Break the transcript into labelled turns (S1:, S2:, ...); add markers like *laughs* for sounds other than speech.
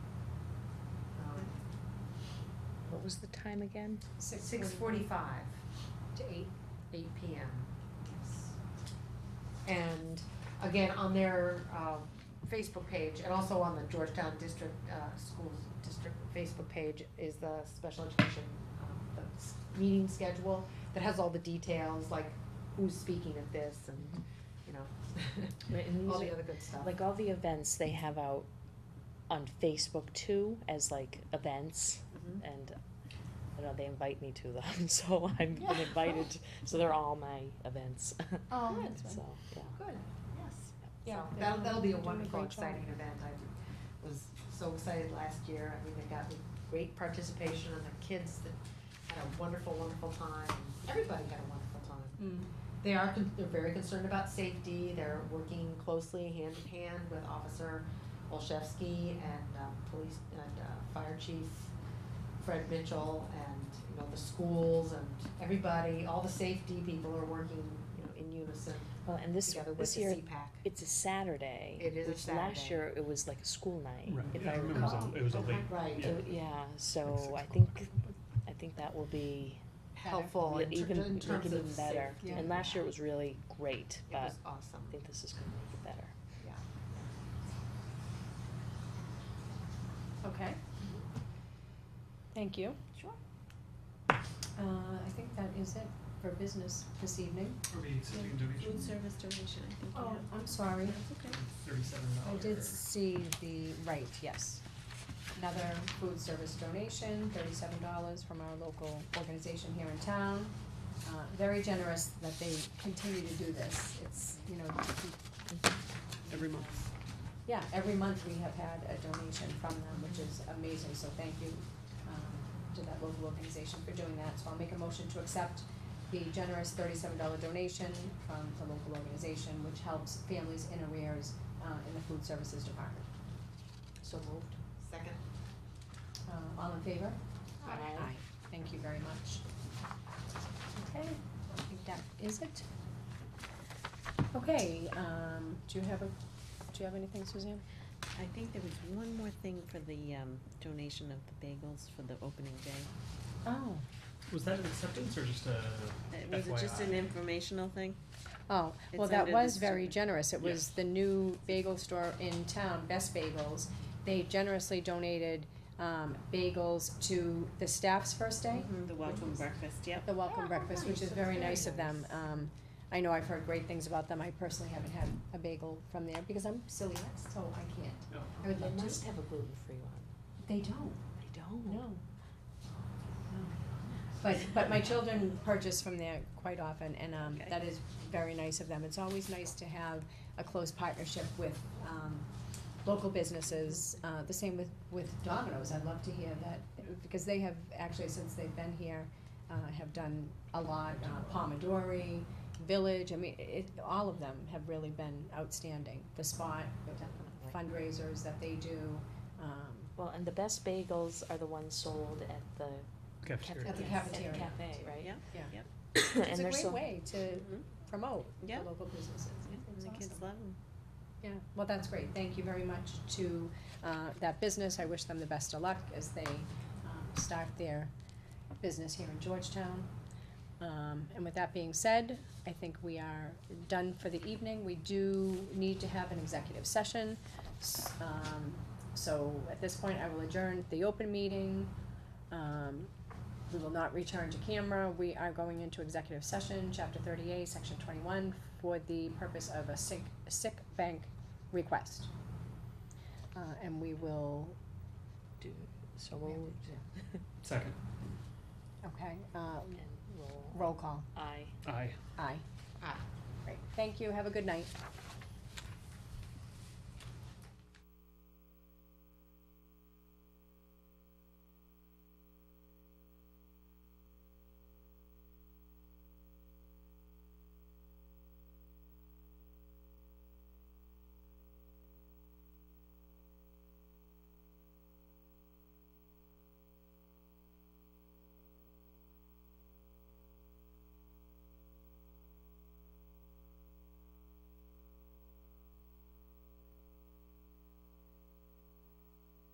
S1: what was the time again?
S2: Um, Six forty-five to eight, eight P M. And again, on their uh, Facebook page and also on the Georgetown District uh, Schools District Facebook page is the special education, um, the s- meeting schedule that has all the details, like who's speaking at this and, you know, *laughs*
S1: Right, and
S2: all
S1: these
S2: the
S1: are,
S2: other good stuff.
S1: like uh, all the events they have out on Facebook too, as like events,
S2: Mhm.
S1: and I know they invite me to them, *laughs* so I've been
S3: Yeah.
S1: invited, so they're all my events,
S3: Oh,
S2: Good.
S1: *laughs* so, yeah.
S2: Good, yes. Yeah,
S3: Yeah, they
S2: that'll,
S3: do-
S2: that'll be a
S3: they do a
S2: wonderful,
S3: great job.
S2: exciting event. I was so excited last year. I mean, they got great participation and the kids that had a wonderful, wonderful time. Everybody had a wonderful time. They are, con- they're very concerned about safety. They're working closely hand in hand with Officer Olszewski and um, police, and uh, Fire Chief Fred Mitchell and, you know, the schools and everybody, all the safety people are working, you know, in unison
S1: Well, and this,
S2: together with
S1: this
S2: the
S1: year,
S2: CPAC.
S1: it's a Saturday,
S2: It is a
S1: which last
S2: Saturday.
S1: year it was like a school night,
S4: Right,
S1: if
S4: yeah,
S1: I
S4: I remember it was
S1: recall.
S4: a, it was a
S2: Okay.
S4: late,
S2: Right.
S4: yeah,
S1: So, yeah, so
S4: six
S1: I
S4: o'clock.
S1: think, I think that will be
S2: helpful
S1: Yeah,
S2: in, ter- in
S1: even, make it
S2: terms
S1: even
S2: of
S1: better.
S2: safety.
S1: And last year it was really great,
S2: It
S1: but
S2: was awesome.
S1: I think this is gonna make it better.
S3: Okay. Thank you.
S2: Sure.
S3: Uh, I think that is it for business this evening.
S4: Or the existing donation,
S5: Food service donation, I think you
S3: Oh,
S5: have.
S3: I'm sorry.
S5: That's okay.
S4: thirty-seven
S3: I
S4: dollars.
S3: did see the, right, yes. Another food service donation, thirty-seven dollars from our local organization here in town. Uh, very generous that they continue to do this. It's, you know,
S4: Every month.
S3: yeah, every month we have had a donation from them, which is amazing, so thank you um, to that local organization for doing that. So I'll make a motion to accept the generous thirty-seven dollar donation from the local organization, which helps families in arrears uh, in the food services department.
S2: So moved. Second.
S3: Uh, All in favor?
S2: Aye.
S3: Thank you very much. Okay, I think that is it. Okay, um, do you have a, do you have anything, Suzanne?
S5: I think there was one more thing for the um, donation of the bagels for the opening day.
S3: Oh.
S4: Was that an acceptance or just
S5: Uh,
S4: a
S5: Was it just an
S4: FYI?
S5: informational thing?
S3: Oh, well,
S5: It's
S3: that
S5: under
S3: was
S5: this
S3: very
S5: chapter.
S3: generous. It was
S4: Yes.
S3: the new bagel store in town, Best Bagels. They generously donated, um, bagels to the staff's first day,
S5: The welcome breakfast, yep.
S3: the welcome
S2: Oh,
S3: breakfast, which
S2: nice.
S3: is
S2: That's
S3: very
S2: very
S3: nice of them.
S2: nice.
S3: Um, I know I've heard great things about them. I personally haven't had a bagel from there because I'm celiac, so I can't.
S4: No.
S3: I would love to.
S1: have a gluten-free one.
S3: They don't.
S1: They don't?
S3: No. But, but my children purchase from there quite often, and, um,
S5: Okay.
S3: that is very nice of them. It's always nice to have a close partnership with, um, local businesses, uh, the same with, with Domino's. I'd love to hear that, because they have, actually, since they've been here, uh, have done a lot, uh, Pomodori, Village, I mean, it, all of them have really been outstanding. The Spot, the fundraisers that they do, um,
S1: Well, and the best bagels are the ones sold at the
S4: Cafeteria.
S1: cafeteria.
S3: At the
S1: Yes,
S3: cafeteria.
S1: At the cafe, right? *coughs*
S5: Yeah.
S3: It's
S1: And
S3: a
S1: they're
S3: great
S1: so,
S3: way to
S5: Mhm.
S3: promote the
S5: Yeah.
S3: local businesses.
S5: Yeah,
S3: It's
S5: And the kids
S3: awesome.
S5: love them.
S3: Yeah, well, that's great. Thank you very much to uh, that business. I wish them the best of luck as they um, start their business here in Georgetown. Um, And with that being said, I think we are done for the evening. We do need to have an executive session. S- um, So at this point, I will adjourn the open meeting. Um, We will not return to camera. We are going into executive session, chapter thirty-eight, section twenty-one, for the purpose of a sick, sick bank request. Uh, and we will,
S1: do- so we'll,
S4: Second,
S3: okay, uh,
S1: *laughs* and we'll,
S3: roll call.
S1: I.
S4: aye.
S3: Aye.
S2: Aye.
S3: Great. Thank you. Have a good night.